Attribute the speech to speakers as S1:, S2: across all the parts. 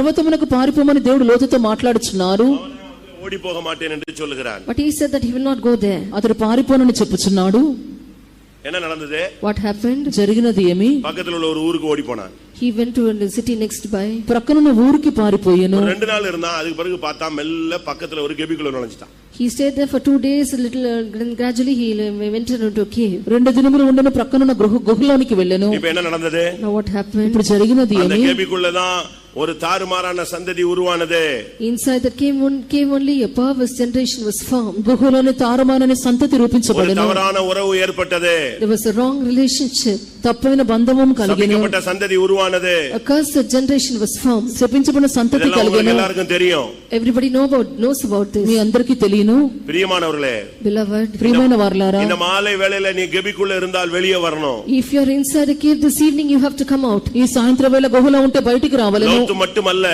S1: పర్వతమునకు పారిపోమని దేవుడు లోతుతో మాట్లాడుచున్నారు
S2: அவனே வந்து ஓடி போக மாட்டேன் என்று சொல்லுகிறான்
S3: But he said that he will not go there.
S1: అతడు పారిపోనని చెప్పుచున్నాడు
S2: என்ன நடந்தது
S3: What happened?
S1: జరిగినది ఏమి
S2: பக்கத்துல உள்ள ஒரு ஊருக்கு ஓடி போனான்
S3: He went to a city next by.
S1: ప్రక్కనున్న ఊరికి పారిపోయాను
S2: ஒரு ரெண்டு நாள் இருந்தான் அதுக்கு பிறகு பார்த்தா மெல்ல பக்கத்துல ஒரு கெபிக்குள்ள நுழைஞ்சிட்டான்
S3: He stayed there for two days, a little, uh, then gradually he uh, went into a cave.
S1: రెండు దినములు ఉండను ప్రక్కనున్న గృహ గుహలోనికి వెళ్ళాను
S2: இப்ப என்ன நடந்தது
S3: Now what happened?
S1: ఇప్పుడు జరిగినది
S2: அந்த
S1: ఏమి
S2: கேபிக்குள்ளதான் ஒரு தாறுமாறான சந்ததி உருவானது
S3: Inside that cave, on, cave only a perverse generation was formed.
S1: గుహలోని తారుమానని సంతతి
S2: ஒரு
S1: రూపించబడను
S2: தவறான உறவு ஏற்பட்டது
S3: There was a wrong relationship.
S1: తప్పైన బంధమం కలిగెను
S2: சபிக்கப்பட்ட சந்ததி உருவானது
S3: A cursed generation was formed.
S1: శపించబడిన సంతతి
S2: இதெல்லாம் உங்களுக்கு
S1: కలిగెను
S2: எல்லாருக்கும் தெரியும்
S3: Everybody know about, knows about
S1: me
S3: this.
S1: అందరికీ తెలియను
S2: பிரியமானவர்களே
S3: Beloved,
S1: ప్రియమైన వారలారా
S2: இந்த மாலை வேளையில நீ கெபிக்குள்ள இருந்தால் வெளியே வரணும்
S3: if you are inside a cave this evening, you have to come out.
S1: ఈ సాయంత్రం వేళ గుహలో ఉంటే బయటికి రావలను
S2: லோத்து மட்டுமல்ல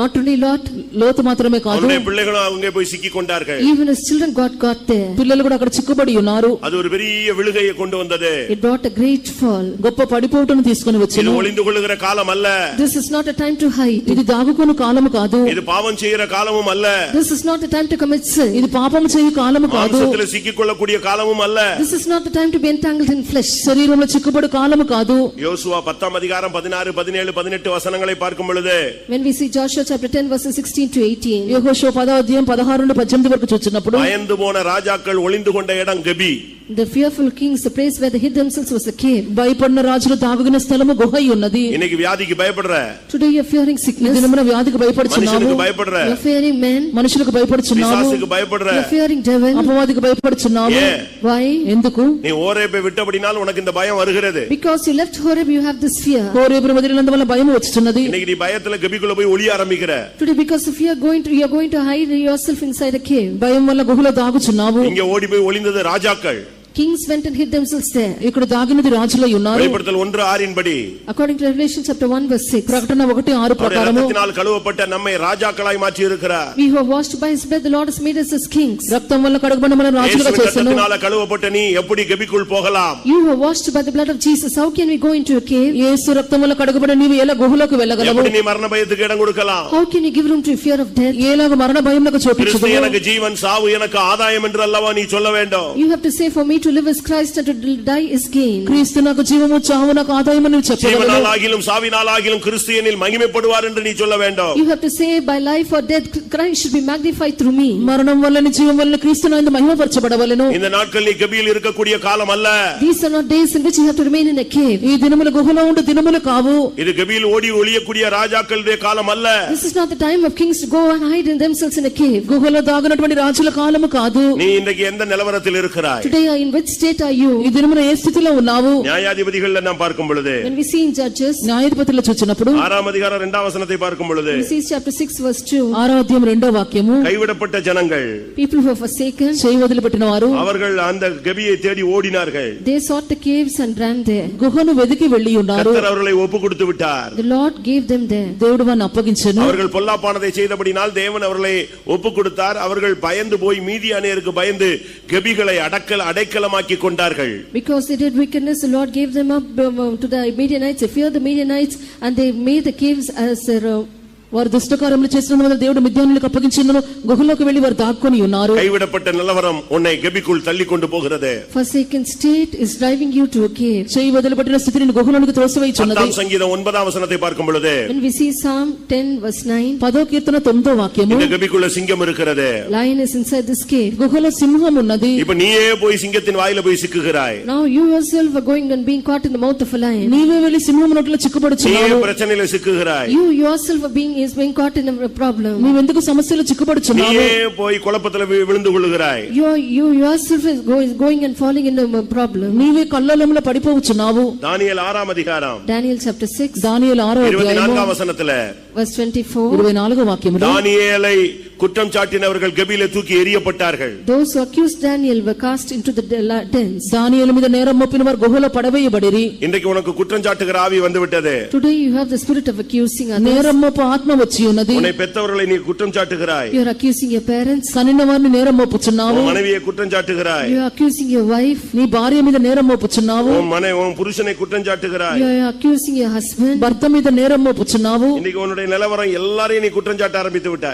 S3: Not only Lot,
S1: లోతు మాత్రమే కాదు
S2: அவனுடைய பிள்ளைகளும் அவங்க போய் சிக்கி கொண்டார்கள்
S3: even his children got got there.
S1: పిల్లలు కూడా అక్కడ చిక్కుబడి ఉన్నారు
S2: அது ஒரு பெரிய விழுகையை கொண்டு வந்தது
S3: It brought a great fall.
S1: గొప్ప పడిపోటును తీసుకుని
S2: இது
S1: వచ్చాను
S2: ஒளிந்து கொள்ளுகிற காலம் அல்ல
S3: This is not a time to hide.
S1: ఇది దాగుకుని కాలము కాదు
S2: இது பாவம் செய்யற காலமும் அல்ல
S3: This is not a time to commit sin.
S1: ఇది పాపము చేయు కాలము కాదు
S2: மாம்சத்துல சிக்கிக் கொள்ளக்கூடிய காலமும் அல்ல
S3: This is not the time to be entangled in flesh.
S1: శరీరంలో చిక్కుబడి కాలము కాదు
S2: யோசுவா பத்தாம் அதிகாரம் பதினாறு பதினேழு பதினெட்டு வசனங்களை பார்க்கும் பொழுது
S3: When we see Joshua chapter 10 verses 16 to 18,
S1: యెహోషువ పదో అధ్యాయం పదహారు నుండి పద్దెనిమిది వరకు చూచినప్పుడు
S2: பயந்து போன ராஜாக்கள் ஒளிந்து கொண்ட இடம் கெபி
S3: the fearful kings, the place where they hid themselves was a cave.
S1: భయపడిన రాజులు దాగుగిన స్థలము గుహ అయి ఉన్నది
S2: இன்னைக்கு విயாதிக்கு பயப்படுற
S3: Today you're fearing
S1: ఈ
S3: sickness,
S1: దినమున వ్యాధికి భయపడుచున్నాము
S2: மனுஷனுக்கு பயப்படுற
S3: you're fearing men,
S1: మనుషులకు భయపడుచున్నాము
S2: பிசாசுக்கு பயப்படுற
S3: you're fearing devil.
S1: అపవాదికి భయపడుచున్నాము
S2: ஏன்
S3: Why?
S1: ఎందుకు
S2: நீ ஓரேப்பை விட்டபடினால் உனக்கு இந்த பயம் வருகிறது
S3: Because you left Horeb, you have this fear.
S1: కోరేపురం వదిలినందువల్ల భయం వచ్చుచున్నది
S2: இன்னைக்கு நீ பயத்துல கெபிக்குள்ள போய் ஒளிய ஆரம்பிக்கிற
S3: Today because of fear, going to, you're going to hide yourself inside a cave.
S1: భయం వల్ల గుహలో దాగుచున్నావు
S2: இங்க ஓடி போய் ஒளிந்தது ராஜாக்கள்
S3: Kings went and hid themselves there.
S1: ఇక్కడ దాగినది రాజులై ఉన్నారు
S2: வெளிப்படுத்தல் ஒன்று ஆறின்படி
S3: According to Revelation chapter 1 verse 6,
S1: ప్రకటన ఒకటి ఆరు
S2: அவருடைய
S1: ప్రకారము
S2: ரத்தத்தினால் கழுவப்பட்ட நம்மை ராஜாக்களாய் மாற்றி இருக்கிறார்
S3: we who are washed by his blood, the Lord has made us as kings.
S1: రక్తం వల్ల కడగబడిన మనం రాజులుగా
S2: இயேசுவின்
S1: చేశాను
S2: ரத்தத்தினால கழுவப்பட்ட நீ எப்படி கெபிக்குள் போகலாம்
S3: You were washed by the blood of Jesus. How can we go into a cave?
S1: యేసు రక్తం వల్ల కడగబడిన నీవు ఎలా గుహలోకి వెళ్ళగలవు
S2: எப்படி நீ மரண பயத்துக்கு இடம் கொடுக்கலாம்
S3: How can you give room to fear of death?
S1: ఏలాగ మరణ భయంలకు
S2: கிறிஸ்து
S1: చూపించదు
S2: எனக்கு ஜீவன் சாவு எனக்கு ஆதாயம் என்று அல்லவா நீ சொல்ல வேண்டும்
S3: You have to say, For me to live is Christ and to die is gain.
S1: క్రీస్తు నాకు జీవము చావు నాకు ఆదాయం అని
S2: ஜீவனால்
S1: చెప్పగలవు
S2: ஆகிலும் சாவினால் ஆகிலும் கிறிஸ்து என்னில் மகிமைப்படுவார் என்று நீ சொல்ல வேண்டும்
S3: You have to say, By life or death, Christ should be magnified through me.
S1: మరణం వల్లని జీవం వల్ల క్రీస్తు నాయన మహిమపరచబడవలెను
S2: இந்த நாட்கள் நீ கபியில் இருக்கக்கூடிய காலம் அல்ல
S3: These are not days in which you have to remain in a cave.
S1: ఈ దినములు గుహలో ఉండే దినములు కావు
S2: இது கபியில் ஓடி ஒளியக்கூடிய ராஜாக்களுடைய காலம் அல்ல
S3: This is not the time of kings to go and hide in themselves in a cave.
S1: గుహలో దాగినటువంటి రాజుల కాలము కాదు
S2: நீ இன்றைக்கு எந்த நிலவரத்தில் இருக்கிறாய்
S3: Today, in which state are
S1: ఈ
S3: you?
S1: దినమున ఏ స్థితిలో ఉన్నావు
S2: நியாயாதிபதிகள் நாம் பார்க்கும் பொழுது
S3: When we see in Judges,
S1: న్యాయాధిపతులు చూచినప్పుడు
S2: ஆறாம் அதிகாரம் இரண்டாம் வசனத்தை பார்க்கும் பொழுது
S3: we see chapter 6, verse 2.
S1: ఆరో అధ్యాయం రెండో వాక్యము
S2: கைவிடப்பட்ட జனங்கள்
S3: People who were forsaken,
S1: చేయి వదిలిపెట్టిన వారు
S2: அவர்கள் அந்த கபியை தேடி ஓடினார்கள்
S3: they sought the caves and ran there.
S1: గుహను వెదికి వెళ్ళి ఉన్నారు
S2: கர்த்தர் அவர்களை ஒப்பு கொடுத்து విட்டார்
S3: The Lord gave them there.
S1: దేవుడు వారిని అప్పగించెను
S2: அவர்கள் பொல்லாப்பானதை செய்தபடினால் தேவன் அவர்களை ஒப்பு கொடுத்தார் அவர்கள் பயந்து போய் மீதியானியருக்கு பயந்து கெபிகளை அடக்கல் அடைக்கலமாக்கி கொண்டார்கள்
S3: Because they did wickedness, the Lord gave them up um, to the Midianites, they feared the Midianites, and they made the caves as their, uh,
S1: వారు దుష్టకారములు చేసినందువల్ల దేవుడు మిద్యానులకు అప్పగించినను గుహలోకి వెళ్లి వారు దాక్కుని ఉన్నారు
S2: கைவிடப்பட்ட நிலவரம் உன்னை கெபிக்குள் தள்ளி கொண்டு போகிறது
S3: forsaken state is driving you to a cave.
S1: చేయి వదిలిపెట్టిన స్థితిని గుహలోనికి త్రోసివేయుచున్నది
S2: பத்தாம் சங்கீதம் ஒன்பதாம் வசனத்தை பார்க்கும் பொழுது
S3: When we see Psalm 10 verse 9,
S1: పదో కీర్తన తొమ్మిదో వాక్యము
S2: இந்த கெபிக்குள்ள சிங்கம் இருக்கிறது
S3: lion is inside this cave.
S1: గుహలో సింహం ఉన్నది
S2: இப்ப நீயே போய் சிங்கத்தின் வாயில போய் சிக்குகிறாய்
S3: Now you yourself are going and being caught in the mouth of a lion.
S1: నీవే వెళ్లి సింహం నోట్లో
S2: நீயே
S1: చిక్కుపడుచున్నావు
S2: பிரச்சனையில சிக்குகிறாய்
S3: You yourself are being, is being caught in a problem.
S1: నీవెందుకు సమస్యలు చిక్కుపడుచున్నావు
S2: நீயே போய் குழப்பத்துல வி- விழுந்து கொள்ளுகிறாய்
S3: You are- you yourself is go- is going and falling into a problem.
S1: నీవే కల్లోలంలో పడిపోవచ్చున్నావు
S2: தானியேல் ఆறாం அதிகாరం
S3: Daniel chapter 6
S1: దానియేలు ఆరో
S2: இருபத்தி
S1: అధ్యాయము
S2: நான்காం வசனத்துல
S3: verse 24,
S1: ఇరవై నాలుగో వాక్యములో
S2: தானியேலை குற்றம் சாட்டினவர்கள் கபில தூக்கி எறியப்பட்டார்கள்
S3: Those who accused Daniel were cast into the de- dens.
S1: దానియేలు మీద నేరం మోపిన వారు గుహలో పడవేయబడిరి
S2: இன்றைக்கு உனக்கு குற்றம் சாட்டுகிற ஆவி வந்துவிட்டது
S3: Today you have the spirit of accusing others.
S1: నేరం మోపు ఆత్మ వచ్చి ఉన్నది
S2: உன்னை பெத்தவர்களை நீ குற்றம் சாட்டுகிறாய்
S3: You are accusing your parents.
S1: కనిన వారిని నేరం మోపుచున్నావు
S2: உன் மனைவியை குற்றம் சாட்டுகிறாய்
S3: You are accusing your wife.
S1: నీ భార్య మీద నేరం మోపుచున్నావు
S2: உன் மனை உன் புருஷனை குற்றம் சாட்டுகிறாய்
S3: You are accusing your husband.
S1: భర్త మీద నేరం మోపుచున్నావు
S2: இன்னைக்கு உன்னுடைய நிலவரம் எல்லாரையும் நீ குற்றம் சாட்ட ஆரம்பித்து விட்டாய்